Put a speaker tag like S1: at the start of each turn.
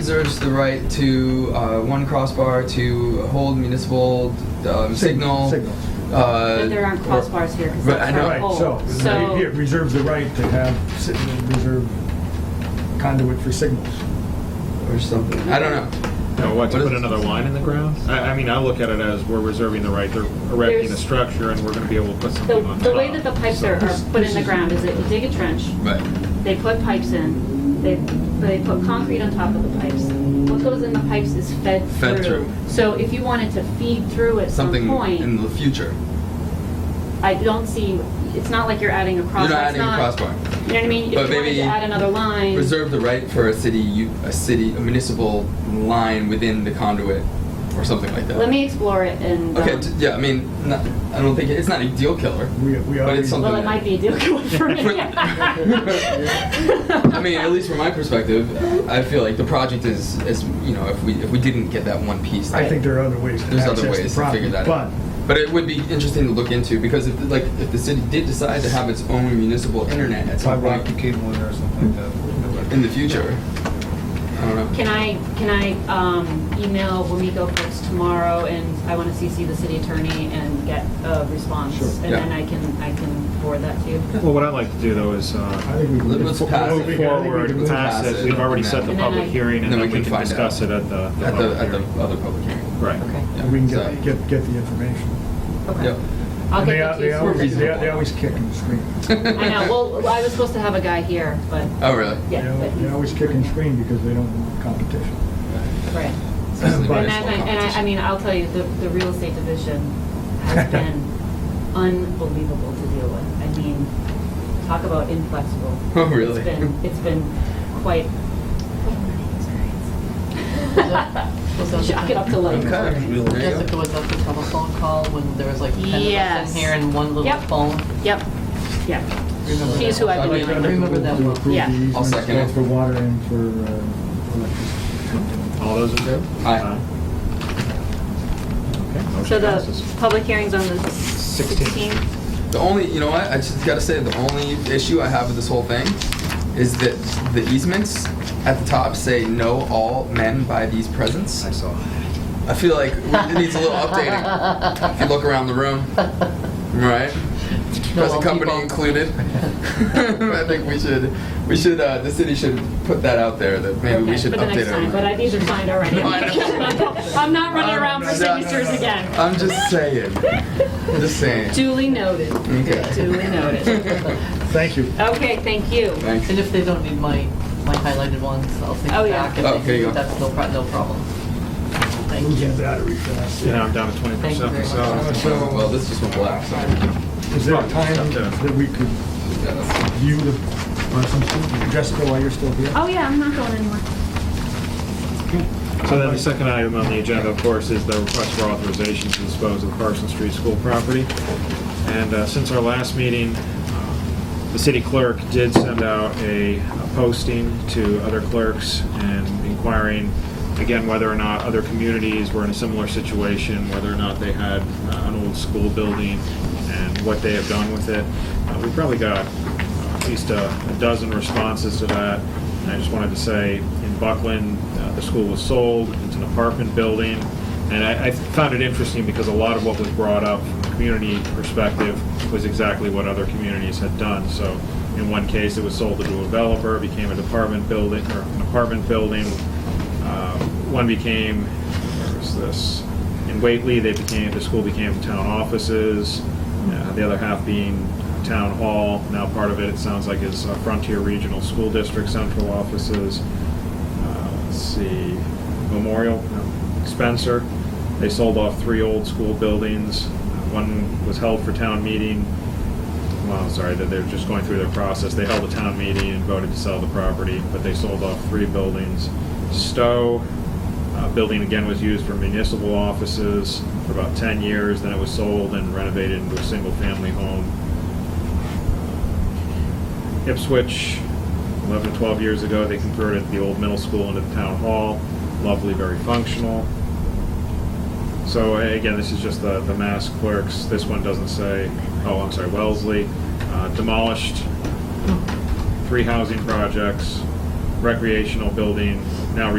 S1: reserves the right to uh, one crossbar to hold municipal um, signal.
S2: Signals.
S1: Uh,
S3: But there aren't
S1: or-
S3: crossbars here because
S1: Right,
S3: that's
S1: I know.
S3: our
S2: Right,
S3: pole.
S2: so,
S3: Oh, So-
S2: it it reserves the right to have, si- reserve conduit for signals.
S1: Or something. I don't know.
S4: No, what, to
S1: What
S4: put
S1: is-
S4: another line in the ground? I, I mean, I look at it as we're reserving the right to erecting a
S3: There's-
S4: structure and we're gonna be able to put
S3: The,
S4: something on top.
S3: the way that the pipes are, are put in the ground is that you dig a trench,
S1: Right.
S3: they put pipes in, they, they put concrete on top of the pipes. What goes in the pipes is fed
S1: Fed
S3: through.
S1: through.
S3: So if you wanted to feed through at some
S1: Something in
S3: point,
S1: the future.
S3: I don't see, it's not like you're adding a crossbar.
S1: You're not
S3: It's
S1: adding a crossbar.
S3: You know what I
S1: But
S3: mean? If you wanted
S1: maybe
S3: to add another line.
S1: Reserve the right for a city, u- a city, a municipal line within the conduit, or something like that.
S3: Let me explore it and.
S1: Okay.
S3: um,
S1: t- yeah. I mean, not, I don't think it, it's not a deal killer.
S2: We, we
S1: But
S2: already.
S1: it's something-
S3: Well, it might be a deal killer for me.
S1: I mean, at least from my perspective, I feel like the project is, is you know, if we if we didn't get that one piece,
S2: I think there are other ways to
S1: there's
S2: access
S1: other
S2: the
S1: ways to
S2: property,
S1: figure that
S2: but
S1: out. But it would be interesting to look into because if like if the city did decide to have its own municipal internet at some
S2: uh,
S5: Fiber optic
S1: point
S5: cable in there or something like that.
S1: in the future, I don't know.
S3: Can I, can I um, email Wamiko folks tomorrow and I want to CC the city attorney and get a response?
S2: Sure.
S3: And
S1: Yeah.
S3: then I can, I can forward that to you.
S4: Well, what I like to do though is,
S2: I
S4: uh,
S2: think we. can
S1: Let's
S2: move
S1: pass it.
S2: forward. I
S4: move
S2: think we can
S4: forward,
S2: move
S4: pass
S1: past
S4: it,
S1: it,
S4: we've already
S1: and
S4: set
S3: then-
S4: the
S3: And then
S4: public
S3: I-
S4: hearing and
S1: Then
S4: then
S1: we can
S4: we can
S1: find
S4: discuss
S1: out.
S4: it at the.
S1: At the
S4: public
S1: at the
S4: hearing.
S1: other public hearing.
S4: Right.
S3: Okay,
S1: Yeah,
S2: We can
S1: so-
S2: get, get, get the information.
S3: okay.
S1: Yep.
S3: I'll
S2: And they
S3: get
S2: al-
S3: that to you.
S2: They always,
S3: soon.
S2: they they always kick and scream.
S3: I know, well, well, I was supposed to have a guy here, but,
S1: Oh really?
S2: They
S3: yeah,
S2: al-
S3: but
S2: They
S3: he's-
S2: always kick and scream because they don't want competition.
S3: right.
S1: Especially
S2: But-
S3: And
S1: municipal
S3: I, and I, I
S1: competition.
S3: mean, I'll tell you, the, the real estate division has been unbelievable to deal with. I mean, talk about inflexible.
S1: Oh, really?
S3: It's been, it's been quite,
S6: Was that- was that the-
S3: shock it up to life.
S1: Okay. There you
S6: Jessica,
S1: go.
S6: was that the telephone call when there was like ten of us
S3: Yes.
S6: in here and one little
S3: Yep.
S6: phone?
S3: Yep, yep.
S6: Remember that?
S3: She's who I've been
S1: I'd like
S2: I'd
S3: dealing
S2: like
S3: with.
S2: to
S6: Remember
S2: move
S6: that
S2: to
S6: one.
S2: approve the
S3: Yeah. I'll
S2: easements
S1: second
S2: both
S1: it.
S2: For water and for uh, electricity.
S4: All those in favor?
S1: Aye.
S4: Okay, motion
S3: So the
S4: passes.
S3: public hearing's on the
S4: Sixteenth.
S3: 16th.
S1: The only, you know what, I just gotta say, the only issue I have with this whole thing is that the easements at the top say, "No all men by these presents."
S4: I saw.
S1: I feel like it needs a little updating. If you look around the room, right? Present company included. I think we should, we should, uh, the city should put that out there that maybe we
S3: Okay,
S1: should
S3: for the next
S1: update
S3: time, But I
S1: it.
S3: these are signed already.
S1: No, I know.
S3: I'm not running around for
S1: No, no, no,
S3: signatures
S1: no.
S3: again.
S1: I'm just saying. Just saying.
S3: Duly noted.
S1: Okay.
S3: Duly noted.
S2: Thank you.
S3: Okay, thank you.
S1: Thanks.
S6: And if they don't need my, my highlighted ones, I'll send
S3: Oh,
S6: it
S3: yeah.
S6: back.
S1: Oh,
S6: If
S1: there
S6: they
S1: you
S6: do,
S1: go.
S6: that's no pro- no problem. Thank
S2: Losing
S6: you.
S2: battery fast.
S4: Yeah, I'm down to twenty
S6: Thank you very
S4: percent,
S6: much.
S4: so.
S1: So, well, this just went black, so.
S2: Is there a
S4: Right,
S2: time
S4: okay.
S2: that we could
S1: yeah, that's-
S2: view the, uh, Jessica, while you're still here?
S3: Oh, yeah, I'm not going anywhere.
S4: So then the second item on the agenda, of course, is the request for authorization to dispose of Carson Street School property. And uh, since our last meeting, uh, the city clerk did send out a a posting to other clerks and inquiring, again, whether or not other communities were in a similar situation, whether or not they had uh, an old school building and what they have done with it. Uh, We probably got at least a a dozen responses to that. And I just wanted to say, in Buckland, uh, the school was sold, it's an apartment building. And I, I found it interesting because a lot of what was brought up from the community perspective was exactly what other communities had done. So in one case, it was sold to a developer, became an apartment building, or an apartment building. Uh, One became, where was this? In Whately, they became, the school became town offices, uh, the other half being town hall. Now part of it, it sounds like, is uh, Frontier Regional School District central offices. Uh, Let's see, Memorial, no, Spencer. They sold off three old school buildings. One was held for town meeting, well, sorry, that they're just going through their process. They held a town meeting and voted to sell the property, but they sold off three buildings. Stowe, uh, building again was used for municipal offices for about 10 years, then it was sold and renovated into a single-family home. Ipswich, 11, 12 years ago, they converted the old middle school into the town hall. Lovely, very functional. So a- again, this is just the, the mass clerks. This one doesn't say, oh, I'm sorry, Wellesley. Uh, Demolished three housing projects, recreational building, now